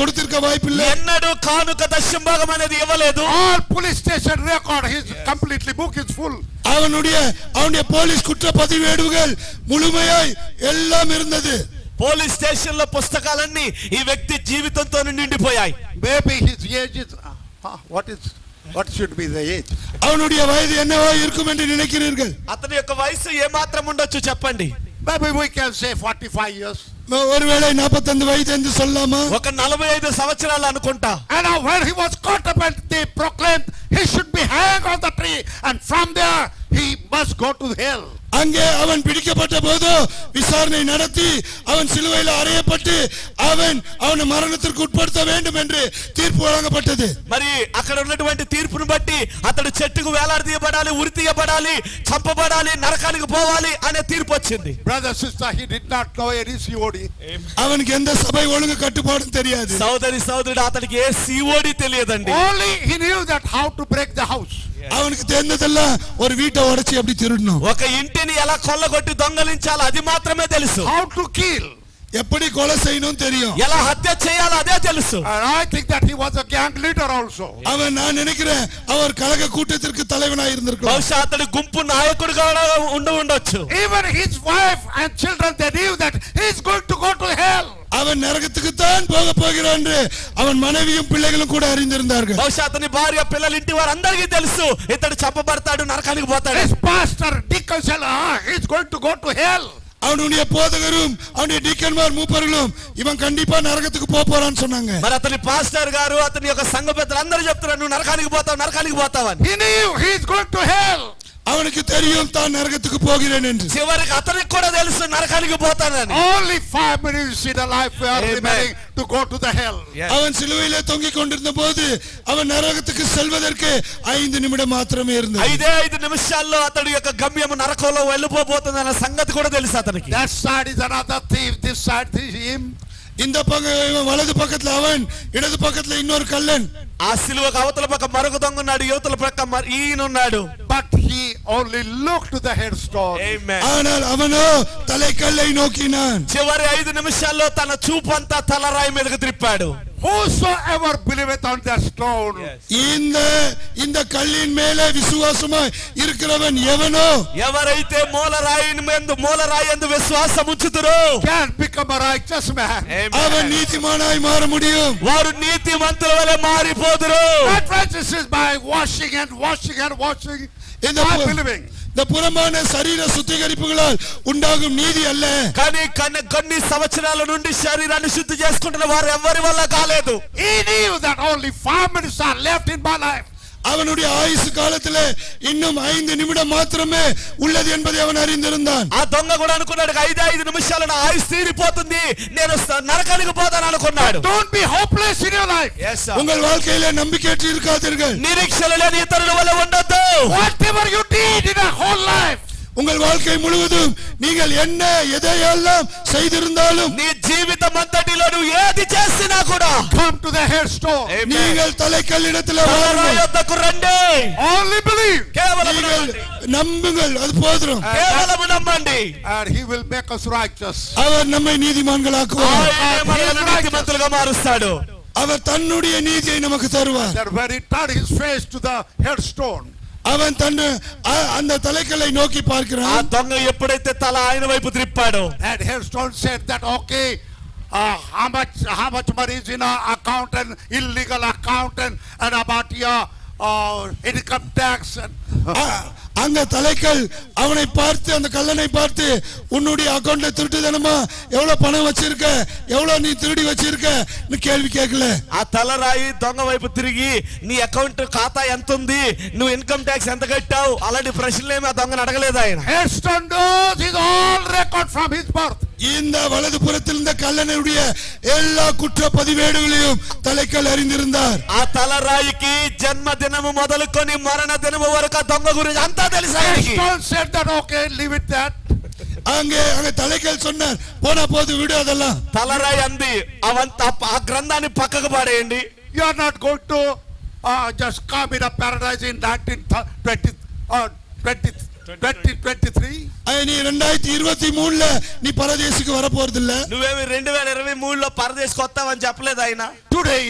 கொடுத்திருக்க வாய்ப்பில்லை ఎన్నడూ కానుక దశంభాగం అనేది ఇవ్వలేదు All police station record is completely book is full. அவனுடைய அவனுடைய போலீஸ் குற்றப்பதிவேடுகள் முழுமையாய் எல்லாம் இருந்தது పోలీస్ స్టేషన్ లో పుస్తకాలన్నీ ఈ వ్యక్తి జీవితంతో నిండిపోయాయి Maybe his age is, uh, huh, what is, what should be the age? அவனுடைய வயது என்னவா இருக்கும் என்று நினைக்கிறீர்கள் అతని యొక్క వయసు ఏమాత్రం ఉండొచ్చు చెప్పండి Maybe we can say forty-five years. ஒருவேளை நாற்பத்தைந்து వయసు என்று சொல்லலாமா ఒక నలభై ఐదు సంవత్సరాలు అనుకుంటా And now when he was caught up and they proclaimed he should be hanged on the tree and from there he must go to hell. அங்கே அவன் பிடிக்கப்பட்ட போது விசாரணை நடத்தி அவன் சிலுவையில் அறையப்பட்டு அவன் அவனை மரணத்திற்கு உட்படுத்த வேண்டும் என்று தீர்ப்பு வழங்கப்பட்டது మరి అక్కడ ఉన్నటువంటి తీర్పును బట్టి అతడు చెట్టుకు వేలాడదీయబడాలి ఉరి తీయబడాలి చంపబడాలి నరకానికి పోవాలి అనే తీర్పు వచ్చింది Brother, sister, he did not know any COD. அவனுக்கு எந்த సభై ఒలుగు కట్టుబాటుం తెలియదు సోదరి సోదరుడు అతనికి ఏ సిఓడి తెలియదండి Only he knew that how to break the house. அவனுக்கு தெரிந்ததெல்லாம் ஒரு வீட்டை உடைச்சி அப்படி திருடணும் ఒక ఇంటిని ఎలా కొల్లగొట్టి దొంగలించాలి అది మాత్రమే తెలుసు how to kill. எப்படி கொலை செய்யணும் தெரியும் ఎలా హత్య చేయాలో అదే తెలుసు And I think that he was a gang leader also. அவன் நான் நினைக்கிறேன் அவர் கழக கூட்டத்திற்கு தலைவனாய் இருந்திருக்கலாம் బహుశా అతడు గుంపు నాయకుడుగా కూడా ఉండి ఉండొచ్చు Even his wife and children, they knew that he's going to go to hell. அவன் நரகத்துக்கு தான் போக போகிறான் என்று அவன் மனைவியும் பிள்ளைகளும் கூட அறிந்திருந்தார்கள் బహుశా అతని భార్య పిల్లలు ఇంటి వారు అందరికీ తెలుసు ఇతడు చంపబడతాడు నరకానికి పోతాడు His pastor, deacon, said, ah, he's going to go to hell. அவனுடைய போதகரும் அவனுடைய டீக்கன்மார் மூப்பர்களும் இவன் கண்டிப்பா நரகத்துக்கு போப் போறான்னு சொன்னாங்க మరి అతని పాస్టర్ గారు అతని యొక్క సంఘ పెద్దలు అందరూ చెప్తున్నారు నువ్వు నరకానికి పోతావు నరకానికి పోతావు అని He knew he's going to hell. அவனுக்கு தெரியும் தான் నరగத்துக்கு పోగిరేన్ என்று చివరికి అతనికి కూడా తెలుసు నరకానికి పోతానని Only five minutes in a life we are Amen. remaining to go to the hell. அவன் சிலுவையிலே தொங்கிக் கொண்டிருந்த போது அவன் நரகத்துக்கு செல்வதற்கு ஐந்து நிமிடம் மாத்திரமே இருந்தது ఐదే ఐదు నిమిషాల్లో అతడి యొక్క గమ్యం నరకంలో వెళ్ళిపోబోతుంది అన్న సంగతి కూడా తెలుసు అతనికి That side is another thief, this side is him. இந்த பக்கம் இவன் வலது பக்கத்துல அவன் இடது பக்கத்துல இன்னொரு கள்ளன் ఆ సిలువకు అవతల పక్క మరొక దొంగ ఉన్నాడు యువతల పక్క మరి ఈయనున్నాడు But he only looked to the headstone. Amen. ஆனால் அவனோ தலை கல்லை நோக்கினான் చివరి ఐదు నిమిషాల్లో తన చూపంతా తలరాయి మీదకు త్రిప్పాడు Whosoever believeth on that stone, இந்த இந்த கல்லின் மேலே விசுவாசமா இருக்கிறவன் எவனோ ఎవరైతే మూలరాయి ఎందు మూలరాయి ఎందు విశ్వాసం ఉంచుతురో can become a righteous man. அவன் நீதிமானாய் மாற முடியும் వారు నీతి మంతుల వలె మారిపోదురు Not righteous is by washing and washing and washing இந்த by பு- believing. இந்த புறமான சரீர சுத்திகரிப்புகளால் உண்டாகும் நீதி அல்ல కానీ కన్న కొన్ని సంవత్సరాల నుండి శరీరాన్ని శుద్ధి చేసుకుంటున్న వారు ఎవరి వల్ల కాలేదు He knew that only five minutes are left in my life. அவனுடைய ஆயுசு காலத்துல இன்னும் ஐந்து நிமிடம் மாத்திரமே உள்ளது என்பதை அவன் அறிந்திருந்தான் ఆ దొంగ కూడా అనుకున్నాడు ఐదు ఐదు నిమిషాలు నా ఆయుస్ తీరిపోతుంది నేను స- నరకానికి పోతాను అనుకున్నాడు Don't be hopeless in your life. உங்கள் வாழ்க்கையில నம்பிக்கையற்று இருக்காதீர்கள் నిరీక్షణ లేని ఇతరుల వల్ల ఉండొద్దు Whatever you did in a whole life, உங்கள் வாழ்க்கை முழுவதும் நீங்கள் என்ன எதையெல்லாம் செய்திருந்தாலும் నీ జీవితం అంతటిలో నువ్వు ఏది చేసినా కూడా come to the headstone. நீங்கள் தலைக்கல்லிடத்தில் తలరాయి வாருங்கள் వద్దకు రండి Only believe. కేవలం நீங்கள் నమ్మండి. நம்புங்கள் அது போதும் కేవలం నమ్మండి And he will make us righteous. அவர் நம்மை நீதிமான்களாக்குவார் ఆయనే మనల్ని నీతిమంతులుగా మారుస్తాడు அவர் தன்னுடைய நீதியை நமக்கு தருவார் That when he turned his face to the headstone, அவன் தன் அ- அந்த தலைக்கல்லை நோக்கி ఆ பார்க்கிறான் దొంగ ఎప్పుడైతే తల ఆయన వైపు త్రిప్పాడో that headstone said that, okay, uh, how much how much money is in our account and illegal account and, and about your uh, income tax and அ- அங்க தலைக்கல் அவனை பார்த்து அந்த கல்லனை பார்த்து உன்னுடைய அக்கௌண்ட்ல திருட்டுதனமா எவ்வளவு பணம் வச்சிருக்க எவ்வளவு நீ திருடி வச்சிருக்கன்னு கேள்வி கேட்கல ఆ తలరాయి దొంగ వైపు తిరిగి నీ అకౌంట్ ఖాతా ఎంత ఉంది నువ్వు ఇన్కమ్ ట్యాక్స్ ఎంత కట్టావు అలాంటి ప్రశ్నలు ఏమి ఆ దొంగను అడగలేదు ఆయన Headstone knows his all record from his birth. இந்த வலது புறத்தில் இருந்த கல்லனுடைய எல்லா குற்ற பதிவேடுகளையும் தலைக்கல் அறிந்திருந்தார் ఆ తలరాయికి జన్మదినము మొదలుకొని మరణ దినము వరకు ఆ దొంగ గురించి అంతా తెలుసు ఆయనకి Headstone said that, okay, leave it that. அங்கே அங்க தலைக்கல் சொன்னார் போனா போது விடு அதெல்லாம் తలరాయి అంది అవంత ఆ గ్రంథాన్ని పక్కకు పడేయండి You are not going to uh, just come in a paradise in 1920, uh, 20, 2023. அஹ் நீ ரெண்டாயிரத்தி இருபத்தி மூணுல நீ பரதேசிக்கு வரப்போறதில்ல నువ్వేమి రెండు వేల ఇరవై మూడులో పరదేశ్కి వస్తావని చెప్పలేదు ఆయన Today